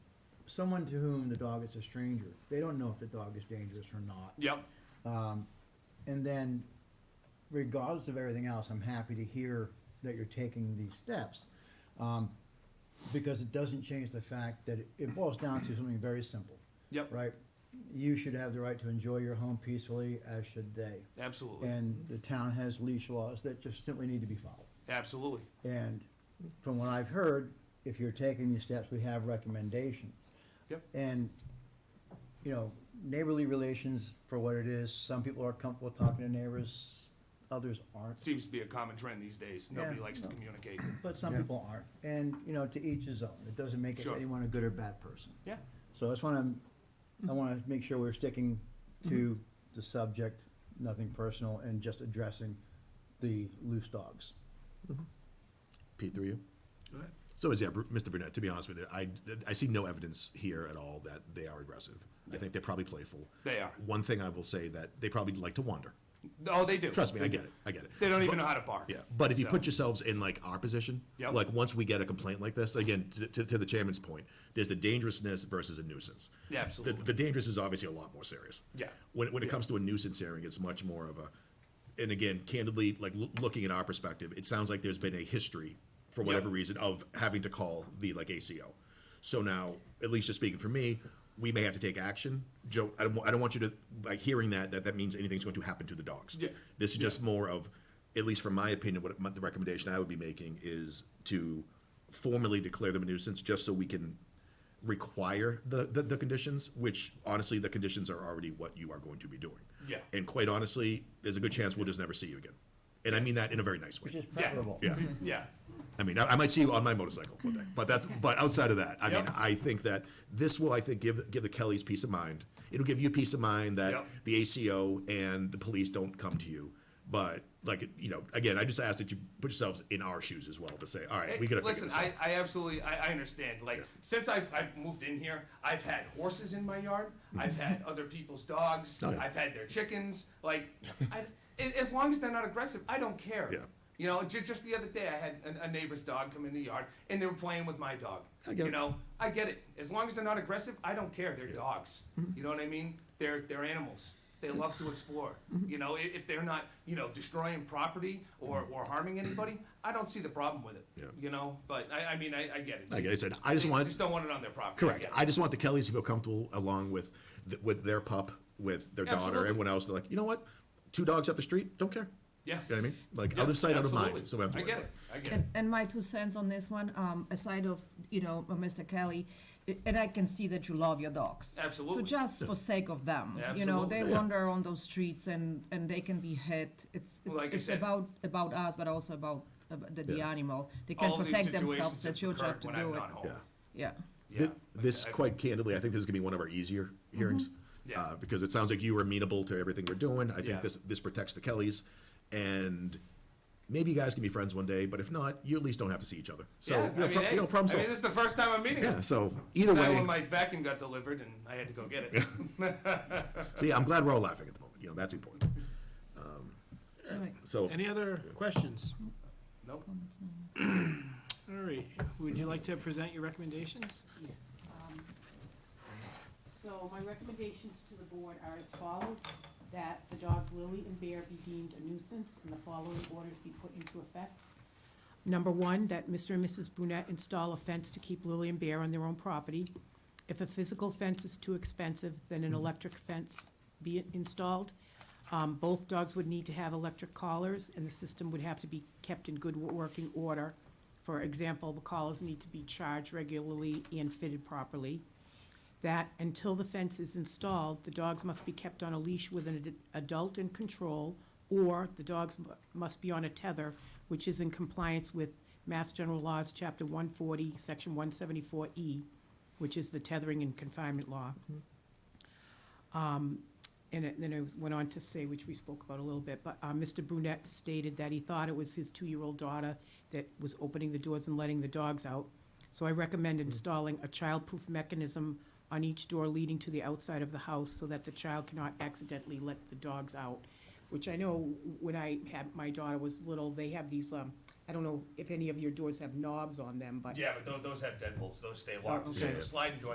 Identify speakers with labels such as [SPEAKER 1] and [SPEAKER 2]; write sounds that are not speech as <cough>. [SPEAKER 1] someone to whom the dog is a stranger, they don't know if the dog is dangerous or not. Um,
[SPEAKER 2] Yep.
[SPEAKER 1] And then, regardless of everything else, I'm happy to hear that you're taking these steps. Um, because it doesn't change the fact that it- it boils down to something very simple.
[SPEAKER 2] Yep.
[SPEAKER 1] Right? You should have the right to enjoy your home peacefully, as should they.
[SPEAKER 2] Absolutely.
[SPEAKER 1] And the town has leash laws that just simply need to be followed.
[SPEAKER 2] Absolutely.
[SPEAKER 1] And from what I've heard, if you're taking these steps, we have recommendations.
[SPEAKER 2] Yep.
[SPEAKER 1] And, you know, neighborly relations for what it is, some people are comfortable talking to neighbors, others aren't,
[SPEAKER 2] Seems to be a common trend these days. Nobody
[SPEAKER 1] Yeah.
[SPEAKER 2] likes to communicate.
[SPEAKER 1] but some people aren't. And, you know, to each his own. It doesn't make
[SPEAKER 2] Sure.
[SPEAKER 1] anyone a good or bad person.
[SPEAKER 2] Yeah.
[SPEAKER 1] So I just want to, I want to make sure we're sticking to
[SPEAKER 2] Mm-hmm.
[SPEAKER 1] the subject, nothing personal, and just addressing the loose dogs.
[SPEAKER 3] Pete, through you. So is yeah, Br- Mr. Burnett. To be honest with you, I, I see no evidence here at all that they are aggressive. I think they're probably playful.
[SPEAKER 2] They are.
[SPEAKER 3] One thing I will say that they probably like to wander.
[SPEAKER 2] Oh, they do.
[SPEAKER 3] Trust me, I get it. I get it.
[SPEAKER 2] They don't even
[SPEAKER 3] But-
[SPEAKER 2] know how to bark.
[SPEAKER 3] Yeah, but if you
[SPEAKER 2] So-
[SPEAKER 3] put yourselves in like our position,
[SPEAKER 2] Yep.
[SPEAKER 3] like once we get a complaint like this, again, to, to, to the chairman's point, there's the dangerousness versus a nuisance.
[SPEAKER 2] Yeah, absolutely.
[SPEAKER 3] The, the dangerous is obviously a lot more serious.
[SPEAKER 2] Yeah.
[SPEAKER 3] When, when it
[SPEAKER 2] Yeah.
[SPEAKER 3] comes to a nuisance hearing, it's much more of a, and again, candidly, like loo- looking at our perspective, it sounds like there's been a history for whatever
[SPEAKER 2] Yep.
[SPEAKER 3] reason of having to call the like ACO. So now, at least just speaking for me, we may have to take action. Joe, I don't, wa- I don't want you to, like hearing that, that that means anything's going to happen to the dogs.
[SPEAKER 2] Yeah.
[SPEAKER 3] This is just more of, at least from my opinion, what my- the recommendation I would be making is to formally declare them a nuisance, just so we can require the, the, the conditions, which honestly, the conditions are already what you are going to be doing.
[SPEAKER 2] Yeah.
[SPEAKER 3] And quite honestly, there's a good chance we'll just never see you again. And I mean that in a very nice
[SPEAKER 1] Which
[SPEAKER 3] way.
[SPEAKER 1] is preferable.
[SPEAKER 3] Yeah.
[SPEAKER 2] Yeah.
[SPEAKER 3] I mean, I, I might see you on my motorcycle one day, but that's but outside of that, I
[SPEAKER 2] Yep.
[SPEAKER 3] mean, I think that this will, I think, give give the Kellys peace of mind. It'll give you peace of mind that
[SPEAKER 2] Yep.
[SPEAKER 3] the ACO and the police don't come to you. But like you know, again, I just ask that you put yourselves in our shoes as well to say, all right, we gotta
[SPEAKER 2] listen.
[SPEAKER 3] figure this
[SPEAKER 2] I, I absolutely I, I understand. Like
[SPEAKER 3] Yeah.
[SPEAKER 2] since I've, I've moved in here, I've had horses in my yard. I've had other people's dogs.
[SPEAKER 3] Mm-hmm. Oh, yeah.
[SPEAKER 2] I've had their chickens. Like I, a- as long as they're not aggressive, I don't care.
[SPEAKER 3] Yeah.
[SPEAKER 2] You know, ju- just the other day, I had a, a neighbor's dog come in the yard, and they were playing with my dog.
[SPEAKER 3] I get
[SPEAKER 2] you
[SPEAKER 3] it.
[SPEAKER 2] know, I get it. As long as they're not aggressive, I don't care. They're dogs.
[SPEAKER 3] Mm-hmm.
[SPEAKER 2] You know what I mean? They're they're animals. They love to explore.
[SPEAKER 3] Mm-hmm.
[SPEAKER 2] You know, i- if they're not, you know, destroying property or, or harming anybody, I don't see the problem with it.
[SPEAKER 3] Mm-hmm. Yeah.
[SPEAKER 2] You know, but I, I mean, I, I get it.
[SPEAKER 3] Like I said, I just
[SPEAKER 2] They
[SPEAKER 3] want-
[SPEAKER 2] just don't want it on their property.
[SPEAKER 3] Correct.
[SPEAKER 2] get it.
[SPEAKER 3] I just want the Kellys to feel comfortable along with th- with their pup, with their
[SPEAKER 2] Absolutely.
[SPEAKER 3] daughter, everyone else. They're like, you know what? Two dogs up the street, don't care.
[SPEAKER 2] Yeah.
[SPEAKER 3] You know what I mean? Like
[SPEAKER 2] Yeah,
[SPEAKER 3] out of sight, out of
[SPEAKER 2] absolutely.
[SPEAKER 3] mind. So we have to
[SPEAKER 2] I
[SPEAKER 3] worry
[SPEAKER 2] get
[SPEAKER 3] about
[SPEAKER 2] it. I get it.
[SPEAKER 4] And, and my two cents on this one, um, aside of, you know, Mr. Kelly, i- and I can see that you love your dogs.
[SPEAKER 2] Absolutely.
[SPEAKER 4] So just for sake of them, you know,
[SPEAKER 2] Absolutely.
[SPEAKER 4] they
[SPEAKER 2] Yeah.
[SPEAKER 4] wander on those streets and, and they can be hit. It's,
[SPEAKER 2] Well,
[SPEAKER 4] it's,
[SPEAKER 2] like I
[SPEAKER 4] it's
[SPEAKER 2] said-
[SPEAKER 4] about, about us, but also about, about the, the
[SPEAKER 3] Yeah.
[SPEAKER 4] animal. They can
[SPEAKER 2] All of these
[SPEAKER 4] protect
[SPEAKER 2] situations
[SPEAKER 4] themselves,
[SPEAKER 2] have
[SPEAKER 4] that's your
[SPEAKER 2] occurred
[SPEAKER 4] job to
[SPEAKER 2] when I'm
[SPEAKER 4] do it.
[SPEAKER 2] not home.
[SPEAKER 3] Yeah.
[SPEAKER 4] Yeah.
[SPEAKER 2] Yeah.
[SPEAKER 3] Thi- This,
[SPEAKER 2] Like, I- Mm-hmm.
[SPEAKER 3] quite candidly, I think this is gonna be one of our easier hearings.
[SPEAKER 2] Yeah.
[SPEAKER 3] uh, Because it sounds like you were amenable to everything we're doing. I
[SPEAKER 2] Yeah.
[SPEAKER 3] think this, this protects the Kellys. And maybe you guys can be friends one day, but if not, you at least don't have to see each other. So,
[SPEAKER 2] yeah,
[SPEAKER 3] you
[SPEAKER 2] I
[SPEAKER 3] know,
[SPEAKER 2] mean,
[SPEAKER 3] pro-
[SPEAKER 2] hey,
[SPEAKER 3] you know, problem
[SPEAKER 2] I mean, this
[SPEAKER 3] solved.
[SPEAKER 2] is the first time I'm meeting
[SPEAKER 3] Yeah,
[SPEAKER 2] him.
[SPEAKER 3] so either
[SPEAKER 2] Time when
[SPEAKER 3] way,
[SPEAKER 2] my vacuum got delivered and I had to go get
[SPEAKER 3] <laughs>
[SPEAKER 2] it.
[SPEAKER 3] so yeah, I'm glad we're all laughing at the moment. You know, that's important.
[SPEAKER 4] Right.
[SPEAKER 3] So,
[SPEAKER 5] Any other questions?
[SPEAKER 2] Nope.
[SPEAKER 5] All right, would you like to present your recommendations?
[SPEAKER 6] Yes. um, So my recommendations to the board are as follows, that the dogs Lily and Bear be deemed a nuisance and the following orders be put into effect. Number one, that Mr. and Mrs. Brunette install a fence to keep Lily and Bear on their own property. If a physical fence is too expensive, then an electric fence be installed. Um, Both dogs would need to have electric collars, and the system would have to be kept in good working order. For example, the collars need to be charged regularly and fitted properly. That until the fence is installed, the dogs must be kept on a leash with an ad- adult in control, or the dogs mu- must be on a tether, which is in compliance with Mass General Laws, Chapter 140, Section E. 174E, which is the tethering and confinement law. Um, And it- then it went on to say, which we spoke about a little bit, but uh, Mr. Brunette stated that he thought it was his two-year-old daughter that was opening the doors and letting the dogs out. So I recommend installing a childproof mechanism on each door leading to the outside of the house so that the child cannot accidentally let the dogs out. Which I know when I had, my daughter was little, they have these, um, I don't know if any of your doors have knobs on them, but
[SPEAKER 2] Yeah, but tho- those have deadbolts. Those stay locked.
[SPEAKER 6] Oh,
[SPEAKER 2] So
[SPEAKER 6] okay.
[SPEAKER 2] the sliding door